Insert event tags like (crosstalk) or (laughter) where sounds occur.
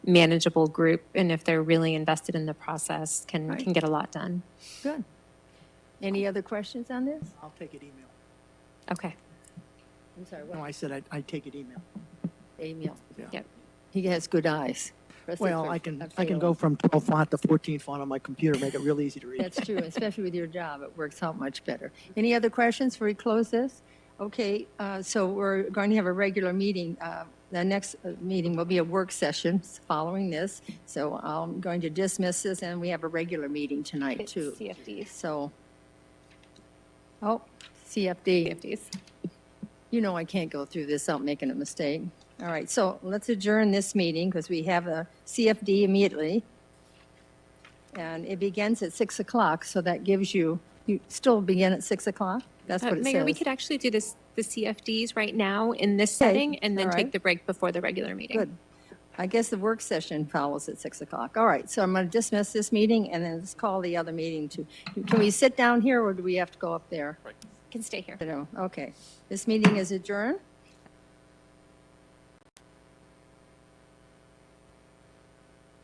manageable group and if they're really invested in the process can Right. can get a lot done Good. Any other questions on this? I'll take it email. okay I'm sorry, No, what, I said I'd, I'd take it email. Emil? Yeah. Yep. He has good eyes. Trustee Well, I Fritz- can, uh, I can go Philo. from 12 font to 14 font on my computer, make it real easy to (laughs) read. That's true, especially with your job, it works out much better. Any other questions before we close this? Okay, uh, so we're going to have a regular meeting. Uh, The next uh, meeting will be a work session following this, so I'm going to dismiss this, and we have a regular meeting tonight, It's too. cfds So, oh, CFD. cfds You know I can't go through this without making a mistake. All right, so let's adjourn this meeting because we have a CFD immediately. And it begins at 6 o'clock, so that gives you, you still begin at 6 o'clock? That's Uh, what it mayor we says. could actually do this the cfds right now in this Okay, setting and then all take right. the break before the regular meeting Good. I guess the work session follows at 6 o'clock. All right, so I'm going to dismiss this meeting and then let's call the other meeting to, can we sit down here or do we have to go up there? can stay here You know, Okay, this meeting is adjourned.